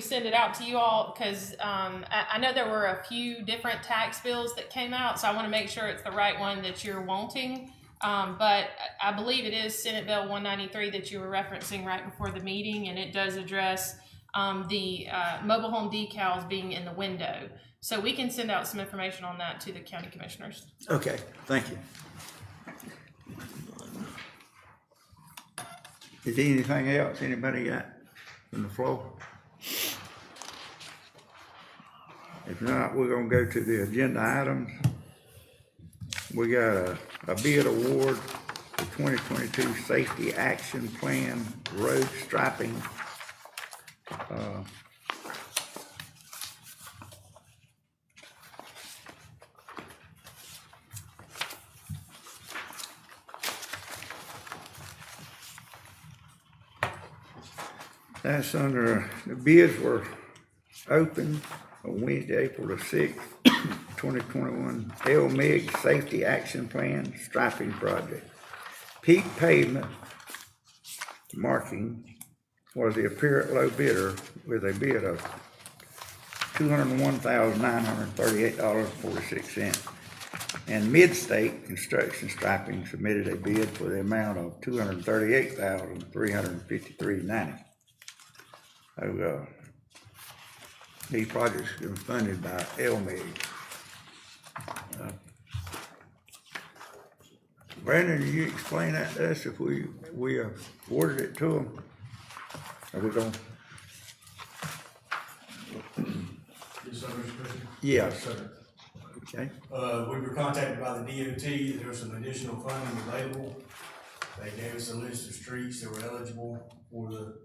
send it out to you all because um, I, I know there were a few different tax bills that came out, so I want to make sure it's the right one that you're wanting. Um, but I- I believe it is Senate Bill 193 that you were referencing right before the meeting, and it does address um, the uh, mobile home decals being in the window. So we can send out some information on that to the county commissioners. Okay, thank you. Is there anything else anybody got on the floor? If not, we're gonna go to the agenda items. We got a, a bid award for twenty twenty-two Safety Action Plan Road Striping. Uh, That's under, the bids were open on Wednesday, April the sixth, twenty twenty-one. L MIG Safety Action Plan Striping Project. Peak pavement marking was the apparent low bidder with a bid of two hundred and one thousand nine hundred and thirty-eight dollars and forty-six cents. And Midstate Construction Striping submitted a bid for the amount of two hundred and thirty-eight thousand three hundred and fifty-three ninety. So, uh, these projects have been funded by LMIG. Uh, Brandon, you explain that to us if we, we awarded it to them? Are we going, Yes, sir, Mr. President. Yeah. Yes, sir. okay? Uh, we were contacted by the DOT, there was some additional funding available. They gave us a list of streets that were eligible for the,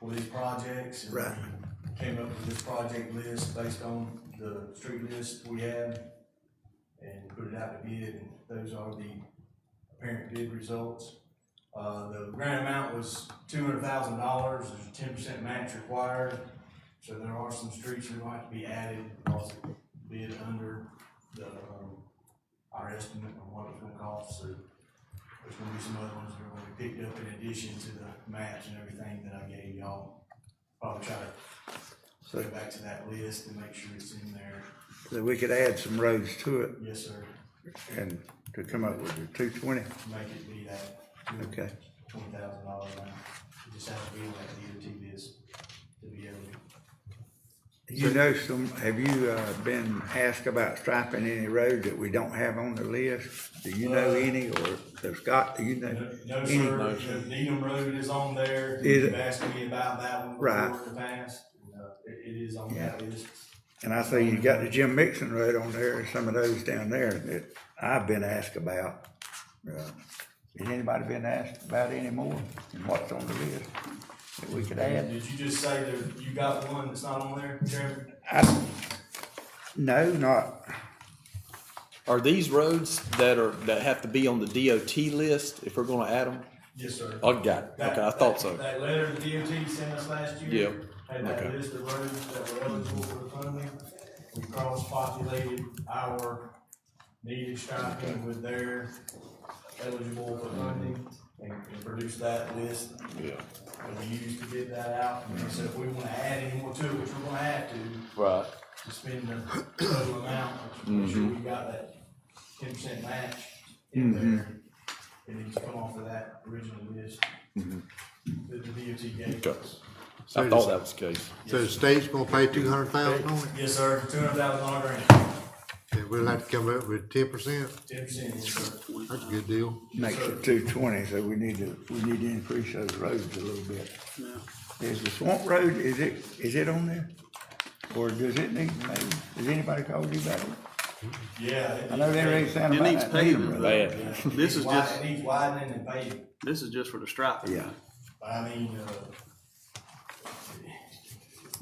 for these projects. and Right. Came up with this project list based on the street list we had and put it out to bid, and those are the apparent bid results. Uh, the grant amount was two hundred thousand dollars, there's a ten percent match required. So there are some streets that might be added, also bid under the, um, our estimate of what it's gonna cost, so there's gonna be some other ones that are gonna be picked up in addition to the maps and everything that I gave y'all. Probably try to go back to that list and make sure it's in there. So we could add some roads to it Yes, sir, and to come up with the two twenty, make it be that. okay? Twenty thousand dollars amount, It just have to be like the DOT is to be able to. You know some, have you, uh, been asked about striping any roads that we don't have on the list? Do you know Uh, any, or, so Scott, do you know? No, any- sir, The Needham Road is on there, Is it? you've asked me about that one Right. before in the past, and, uh, it, it is on that list. And I see you got the Jim Mixon Road on there, and some of those down there that I've been asked about. Uh, Has anybody been asked about any more and what's on the list that we could add? Did you just say that you got one that's not on there, Chairman? I, no, not, Are these roads that are, that have to be on the DOT list if we're gonna add them? Yes, sir. Oh, got it. That- Okay, I thought so. That letter the DOT sent us last year. Yeah. Had that Okay. list of roads that were eligible for funding. We cross-populated our needed striping with their eligible for funding and and produced that list Yeah. that we used to get that out. And so if we wanna add any more to it, which we're gonna have to, Right. to spend the total amount, make Mm-hmm. sure we got that ten percent match in Mm-hmm. there. It needs to come off of that original list Mm-hmm. that the DOT gave Okay. us. I thought that was the case. So the state's gonna pay two hundred thousand on it, Yes, sir, two hundred thousand dollar grant, and we'll have to come up with ten percent, ten percent, yes, sir. that's a good deal. makes it two twenty, so we need to, we need to increase those roads a little bit. Is the Swamp Road, is it, is it on there? Or does it need, maybe, has anybody called you about it? Yeah. I know they're already saying It about needs that Needham paving. Road. Bad. This is just- It needs widening and paving, This is just for the striping. Yeah, but I mean, uh.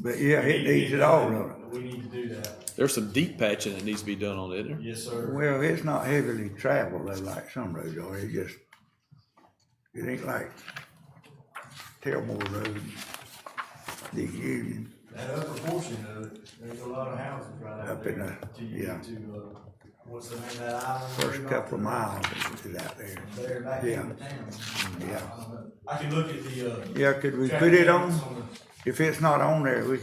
but yeah, it needs it all, don't it? We need to do that, There's some deep patching that needs to be done on it, isn't there? yes, sir. Well, it's not heavily traveled though, like some roads are, it just, it ain't like Tailmore Road, the Union, That upper portion of it, there's a lot of houses right out Up there. in there, till you get yeah. To, uh, what's the name of that island? first couple of miles is out there. There back in the town. Yeah. I can look at the, uh. Yeah, could we traffic put it counts on, the- If it's not on there, we